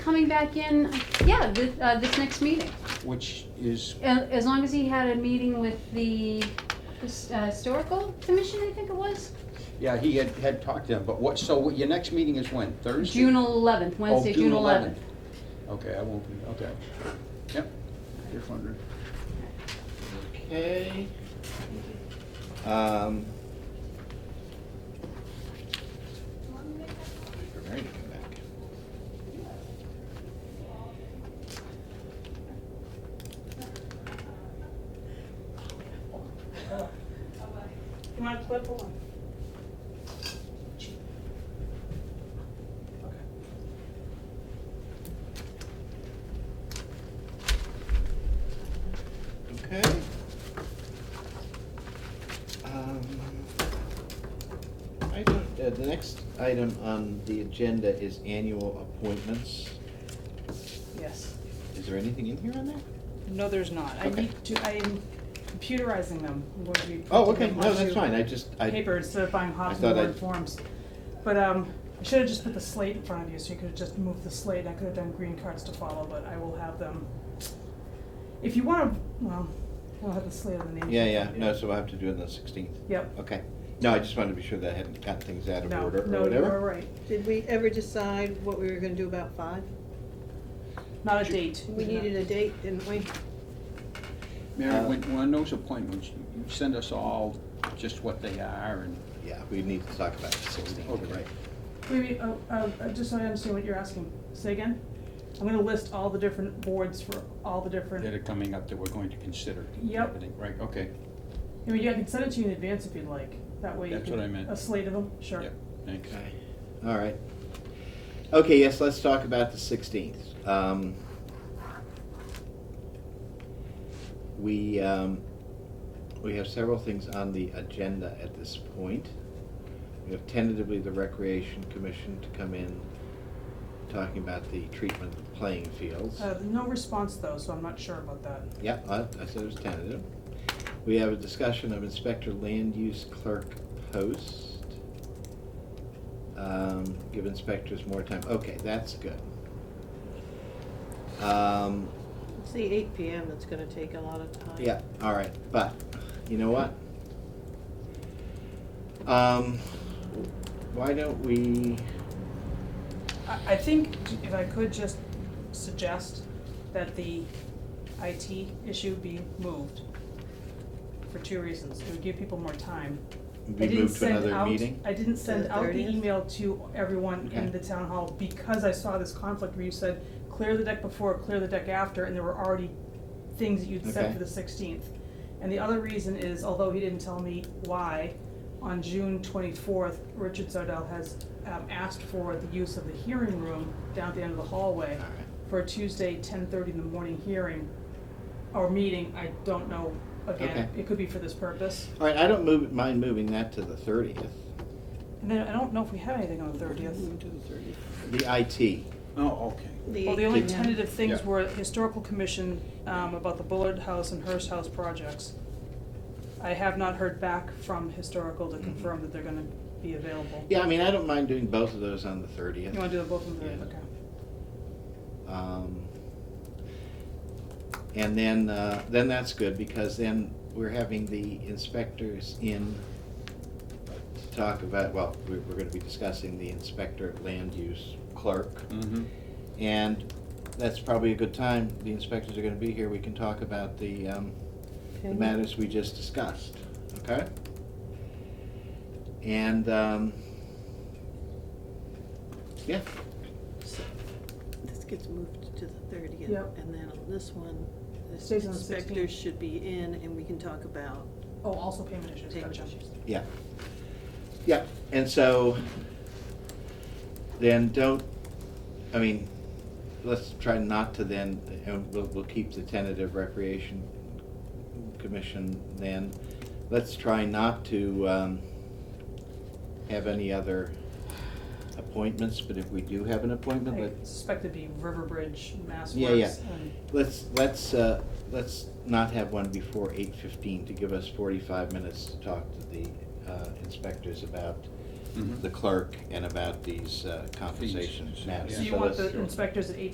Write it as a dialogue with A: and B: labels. A: coming back in, yeah, this, uh, this next meeting.
B: which is,
A: A- As long as he had a meeting with the the s- uh, historical commission, I think it was,
B: yeah, he had, had talked to them, but what, so what- your next meeting is when, Thursday?
A: June eleventh,
B: Oh,
A: Wednesday, June eleventh.
B: Okay, I won't be, okay. Yep, just wondering.
C: Okay. Um. wait for Mary to come back.
D: You want to flip one?
C: Okay. Um, I don't, uh, the next item on the agenda is annual appointments.
E: Yes.
C: Is there anything in here on that?
E: No, there's not. I
C: Okay.
E: need to, I am computerizing them. I'm going to be
C: Oh,
E: printing
C: okay,
E: them
C: no, that's
E: onto
C: fine, I just, I.
E: Paper instead of buying
C: I
E: hot
C: thought
E: and
C: I-
E: word forms. But, um, I should have just put the slate in front of you, so you could have just moved the slate. I could have done green cards to follow, but I will have them. If you wanna, well, we'll have the slate on the names.
C: Yeah,
E: in
C: yeah,
E: front of you.
C: no, so we'll have to do it on the sixteenth.
E: Yep.
C: Okay. No, I just wanted to be sure that I hadn't got things out of
E: No,
C: order or
E: no, you are
C: whatever.
E: right.
D: Did we ever decide what we were gonna do about five?
E: Not a date.
D: We needed a date, didn't we?
B: Mary,
C: Uh,
B: when, when those appointments, you you send us all just what they are and,
C: Yeah, we need to talk about the sixteenth,
B: Okay.
C: right?
E: Wait, wait, oh, uh, uh, just so I understand what you're asking. Say again? I'm gonna list all the different boards for all the different.
B: that are coming up that we're going to consider. and
E: Yep.
B: everything, Right, okay,
E: I mean, yeah, I can send it to you in advance if you'd like, that way you
B: That's
E: can-
B: what I meant.
E: A slate of them, sure.
B: yep, thanks.
C: Okay, all right. Okay, yes, let's talk about the sixteenth. Um, we, um, we have several things on the agenda at this point. We have tentatively the Recreation Commission to come in, talking about the treatment of playing fields.
E: Uh, no response though, so I'm not sure about that.
C: Yeah, I, I said it was tentative. We have a discussion of inspector land use clerk post. Um, give inspectors more time, okay, that's good. Um,
D: It's the eight PM that's gonna take a lot of time.
C: yeah, all right, but, you know what? Um, why don't we,
E: I, I think if I could just suggest that the IT issue be moved for two reasons. It would give people more time. I
C: we
E: didn't
C: move to
E: send
C: another
E: out-
C: meeting?
E: I didn't
D: To
E: send
D: the
E: out the
D: 30th?
E: email to everyone
C: Okay.
E: in the town hall because I saw this conflict where you said, clear the deck before, clear the deck after, and there were already things that you'd
C: Okay.
E: said for the sixteenth. And the other reason is, although he didn't tell me why, on June twenty-fourth, Richard Sardell has, um, asked for the use of the hearing room down at the end of the hallway
C: All right.
E: for a Tuesday, ten thirty in the morning hearing, or meeting, I don't know, again,
C: Okay.
E: it could be for this purpose.
C: All right, I don't move, mind moving that to the thirtieth,
E: And then I don't know if we have anything on the thirtieth.
C: the IT.
B: Oh, okay.
D: The
E: Well, the only
D: 8 p.m.
E: tentative things
B: Yeah.
E: were historical commission, um, about the Bullard House and Hearst House projects. I have not heard back from historical to confirm that they're gonna be available.
C: Yeah, I mean, I don't mind doing both of those on the thirtieth.
E: You wanna do them both of them,
C: Yeah.
E: okay?
C: Um, And then, uh, then that's good, because then we're having the inspectors in to talk about, well, we're, we're gonna be discussing the inspector land use clerk.
B: Mm-hmm,
C: And that's probably a good time, the inspectors are gonna be here, we can talk about the, um, the
D: Okay.
C: matters we just discussed, okay? And, um, yeah,
D: This gets moved to the thirtieth.
E: Yep.
D: And then on this one, the
E: Stays on the 16th.
D: inspectors should be in and we can talk about
E: Oh, also payment issues,
D: payment
E: gotcha.
D: issues.
C: Yeah. Yeah, and so then don't, I mean, let's try not to then, and we'll, we'll keep the tentative recreation commission then. Let's try not to, um, have any other appointments, but if we do have an appointment,
E: I
C: let,
E: suspect it'd be River Bridge, Mass
C: Yeah, yeah.
E: Works, and
C: let's, let's, uh, let's not have one before eight fifteen to give us forty-five minutes to talk to the, uh, inspectors about
B: mm-hmm.
C: the clerk and about these uh, compensation
B: Fees.
C: matters.
B: Yeah.
E: So you
C: So
E: want
C: that's-
E: the inspectors at eight